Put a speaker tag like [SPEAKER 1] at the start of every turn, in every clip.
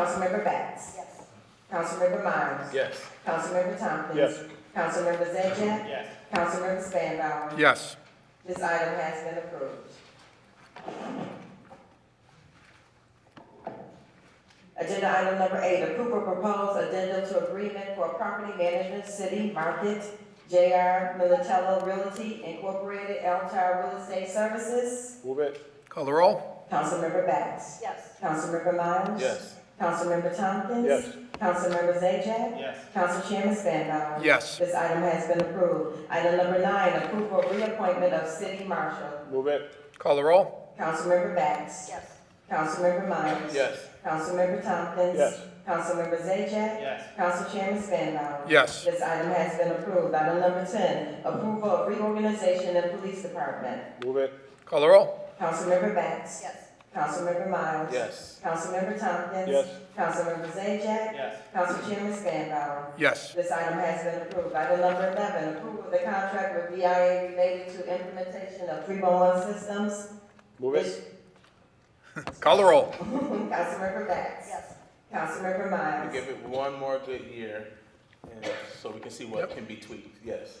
[SPEAKER 1] Councilmember Batts.
[SPEAKER 2] Yes.
[SPEAKER 1] Councilmember Miles.
[SPEAKER 3] Yes.
[SPEAKER 1] Councilmember Tompkins.
[SPEAKER 3] Yes.
[SPEAKER 1] Councilmember Zajac,
[SPEAKER 3] Yes.
[SPEAKER 1] Councilmember Spanbauer.
[SPEAKER 4] Yes.
[SPEAKER 1] This item has been approved. Agenda item number eight, approval proposed addendum to agreement for property management city market, J.R. Militello Realty Incorporated, L Tower Real Estate Services.
[SPEAKER 3] Move it.
[SPEAKER 4] Call the roll?
[SPEAKER 1] Councilmember Bass.
[SPEAKER 2] Yes.
[SPEAKER 1] Councilmember Miles.
[SPEAKER 3] Yes.
[SPEAKER 1] Councilmember Tompkins.
[SPEAKER 3] Yes.
[SPEAKER 1] Councilmember Zajac,
[SPEAKER 3] Yes.
[SPEAKER 1] Council Chairman Spanbauer.
[SPEAKER 4] Yes.
[SPEAKER 1] This item has been approved. Item number nine, approval of reappointment of city marshal.
[SPEAKER 3] Move it.
[SPEAKER 4] Call the roll?
[SPEAKER 1] Councilmember Bass.
[SPEAKER 2] Yes.
[SPEAKER 1] Councilmember Miles.
[SPEAKER 3] Yes.
[SPEAKER 1] Councilmember Tompkins.
[SPEAKER 3] Yes.
[SPEAKER 1] Councilmember Zajac,
[SPEAKER 3] Yes.
[SPEAKER 1] Council Chairman Spanbauer.
[SPEAKER 4] Yes.
[SPEAKER 1] This item has been approved. Item number ten, approval of reorganization of police department.
[SPEAKER 3] Move it.
[SPEAKER 4] Call the roll?
[SPEAKER 1] Councilmember Bass.
[SPEAKER 2] Yes.
[SPEAKER 1] Councilmember Miles.
[SPEAKER 3] Yes.
[SPEAKER 1] Councilmember Tompkins.
[SPEAKER 3] Yes.
[SPEAKER 1] Councilmember Zajac,
[SPEAKER 3] Yes.
[SPEAKER 1] Council Chairman Spanbauer.
[SPEAKER 4] Yes.
[SPEAKER 1] This item has been approved. Item number eleven, approval of the contract with VIA related to implementation of three-one-one systems.
[SPEAKER 3] Move it.
[SPEAKER 4] Call the roll?
[SPEAKER 1] Councilmember Bass.
[SPEAKER 2] Yes.
[SPEAKER 1] Councilmember
[SPEAKER 5] We
[SPEAKER 1] Miles.
[SPEAKER 5] give it one more good year, and so we can see what can be tweaked, yes.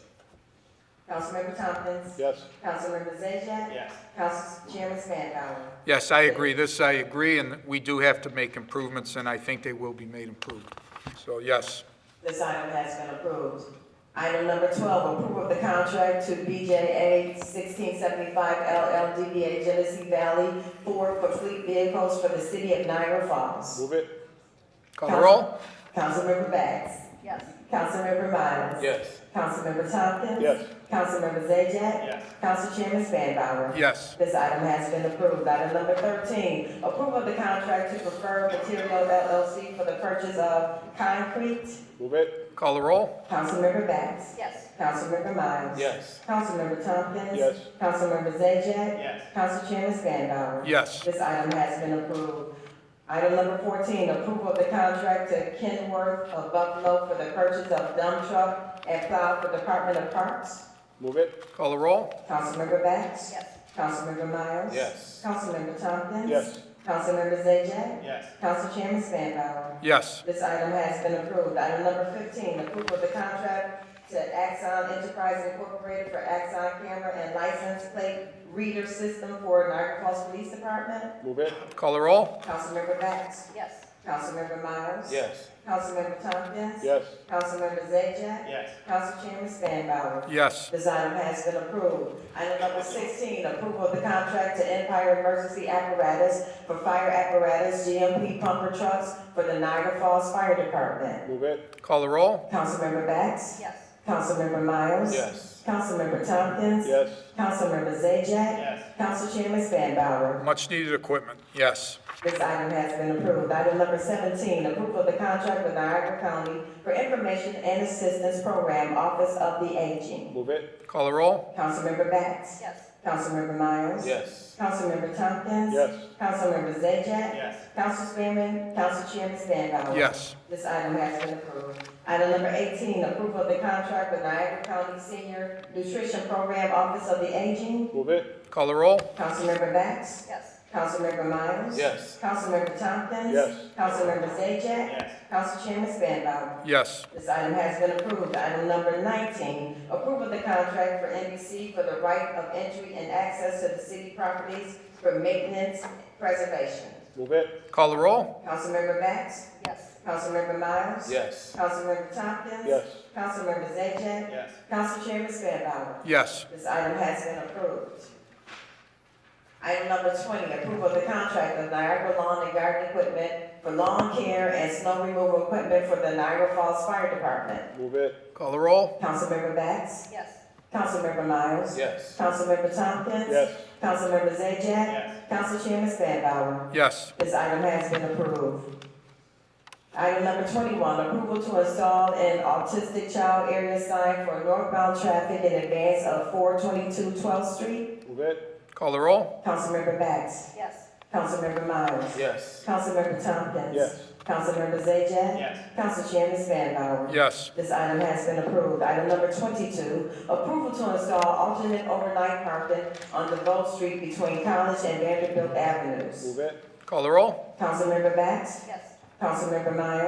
[SPEAKER 1] Councilmember Tompkins.
[SPEAKER 3] Yes.
[SPEAKER 1] Councilmember Zajac,
[SPEAKER 3] Yes.
[SPEAKER 1] Council Chairman Spanbauer.
[SPEAKER 4] Yes, I agree. This, I agree, and we do have to make improvements, and I think they will be made improved. So, yes.
[SPEAKER 1] This item has been approved. Item number twelve, approval of the contract to BJA sixteen seventy-five LLDBA Genesee Valley Ford for fleet vehicles for the city of Niagara Falls.
[SPEAKER 3] Move it.
[SPEAKER 4] Call the roll?
[SPEAKER 1] Councilmember Bass.
[SPEAKER 2] Yes.
[SPEAKER 1] Councilmember Miles.
[SPEAKER 5] Yes,
[SPEAKER 1] Councilmember Tompkins.
[SPEAKER 3] Yes.
[SPEAKER 1] Councilmember Zajac,
[SPEAKER 3] Yes.
[SPEAKER 1] Council Chairman Spanbauer.
[SPEAKER 4] Yes.
[SPEAKER 1] This item has been approved. Item number thirteen, approval of the contract to Preferred Materials LLC for the purchase of concrete.
[SPEAKER 3] Move it.
[SPEAKER 4] Call the roll?
[SPEAKER 1] Councilmember Bass.
[SPEAKER 2] Yes.
[SPEAKER 1] Councilmember Miles.
[SPEAKER 5] yes,
[SPEAKER 1] Councilmember Tompkins.
[SPEAKER 3] Yes.
[SPEAKER 1] Councilmember Zajac,
[SPEAKER 3] Yes.
[SPEAKER 1] Council Chairman Spanbauer.
[SPEAKER 4] Yes.
[SPEAKER 1] This item has been approved. Item number fourteen, approval of the contract to Kenworth of Buffalo for the purchase of dump truck and plow for Department of Parks.
[SPEAKER 3] Move it.
[SPEAKER 4] Call the roll?
[SPEAKER 1] Councilmember Bass.
[SPEAKER 2] Yes.
[SPEAKER 1] Councilmember Miles.
[SPEAKER 5] yes,
[SPEAKER 1] Councilmember Tompkins.
[SPEAKER 3] Yes.
[SPEAKER 1] Councilmember Zajac,
[SPEAKER 3] Yes.
[SPEAKER 1] Council Chairman Spanbauer.
[SPEAKER 4] Yes.
[SPEAKER 1] This item has been approved. Item number fifteen, approval of the contract to Axon Enterprise Incorporated for Axon Camera and License Plate Reader System for Niagara Falls Police Department.
[SPEAKER 3] Move it.
[SPEAKER 4] Call the roll?
[SPEAKER 1] Councilmember Bax.
[SPEAKER 2] Yes.
[SPEAKER 1] Councilmember Miles.
[SPEAKER 5] yes,
[SPEAKER 1] Councilmember Tompkins.
[SPEAKER 3] Yes.
[SPEAKER 1] Councilmember Zajac,
[SPEAKER 3] Yes.
[SPEAKER 1] Council Chairman Spanbauer.
[SPEAKER 4] Yes.
[SPEAKER 1] This item has been approved. Item number sixteen, approval of the contract to Empire Emergency Apparatus for fire apparatus GMP pumper trucks for the Niagara Falls Fire Department.
[SPEAKER 3] Move it.
[SPEAKER 4] Call the roll?
[SPEAKER 1] Councilmember Bax?
[SPEAKER 2] Yes.
[SPEAKER 1] Councilmember Miles?
[SPEAKER 5] yes,
[SPEAKER 1] Councilmember Tompkins?
[SPEAKER 3] Yes.
[SPEAKER 1] Councilmember Zajac,
[SPEAKER 3] Yes.
[SPEAKER 1] Council Chairman Spanbauer.
[SPEAKER 4] Much-needed equipment. Yes.
[SPEAKER 1] This item has been approved. Item number seventeen, approval of the contract with Niagara County for Information and Assistance Program Office of the Aging.
[SPEAKER 3] Move it.
[SPEAKER 4] Call the roll?
[SPEAKER 1] Councilmember Bax?
[SPEAKER 2] Yes.
[SPEAKER 1] Councilmember Miles?
[SPEAKER 5] yes,
[SPEAKER 1] Councilmember Tompkins?
[SPEAKER 3] Yes.
[SPEAKER 1] Councilmember Zajac,
[SPEAKER 3] Yes.
[SPEAKER 1] Council Spearman, Council Chairman Spanbauer.
[SPEAKER 4] Yes.
[SPEAKER 1] This item has been approved. Item number eighteen, approval of the contract with Niagara County Senior Nutrition Program Office of the Aging.
[SPEAKER 3] Move it.
[SPEAKER 4] Call the roll?
[SPEAKER 1] Councilmember Bax?
[SPEAKER 2] Yes.
[SPEAKER 1] Councilmember Miles?
[SPEAKER 5] yes,
[SPEAKER 1] Councilmember Tompkins?
[SPEAKER 3] Yes.
[SPEAKER 1] Councilmember Zajac,
[SPEAKER 3] Yes.
[SPEAKER 1] Council Chairman Spanbauer.
[SPEAKER 4] Yes.
[SPEAKER 1] This item has been approved. Item number nineteen, approval of the contract for NBC for the right of entry and access to the city properties for maintenance preservation.
[SPEAKER 3] Move it.
[SPEAKER 4] Call the roll?
[SPEAKER 1] Councilmember Bax?
[SPEAKER 2] Yes.
[SPEAKER 1] Councilmember Miles?
[SPEAKER 5] yes,
[SPEAKER 1] Councilmember Tompkins?
[SPEAKER 3] Yes.
[SPEAKER 1] Councilmember Zajac,
[SPEAKER 3] Yes.
[SPEAKER 1] Council Chairman Spanbauer.
[SPEAKER 4] Yes.
[SPEAKER 1] This item has been approved. Item number twenty, approval of the contract of Niagara Lawn and Garden Equipment for lawn care and snow removal equipment for the Niagara Falls Fire Department.
[SPEAKER 3] Move it.
[SPEAKER 4] Call the roll?
[SPEAKER 1] Councilmember Bax?
[SPEAKER 2] Yes.
[SPEAKER 1] Councilmember Miles?
[SPEAKER 5] yes,
[SPEAKER 1] Councilmember Tompkins?
[SPEAKER 3] Yes.
[SPEAKER 1] Councilmember Zajac,
[SPEAKER 3] Yes.
[SPEAKER 1] Council Chairman Spanbauer.
[SPEAKER 4] Yes.
[SPEAKER 1] This item has been approved. Item number twenty-one, approval to install an autistic child area sign for northbound traffic in advance of 422 12th street.
[SPEAKER 3] Move it.
[SPEAKER 4] Call the roll?
[SPEAKER 1] Councilmember Bax.
[SPEAKER 2] Yes.
[SPEAKER 1] Councilmember Miles.
[SPEAKER 5] yes,
[SPEAKER 1] Councilmember Tompkins.
[SPEAKER 3] Yes.
[SPEAKER 1] Councilmember Zajac,
[SPEAKER 3] Yes.
[SPEAKER 1] Council Chairman Spanbauer.
[SPEAKER 4] Yes.
[SPEAKER 1] This item has been approved. Item number twenty-two, approval to install alternate overnight parking on DeVoe Street between College and Vanderbilt Avenues.
[SPEAKER 3] Move it.
[SPEAKER 4] Call the roll?
[SPEAKER 1] Councilmember Bax.
[SPEAKER 2] Yes.
[SPEAKER 1] Councilmember Miles?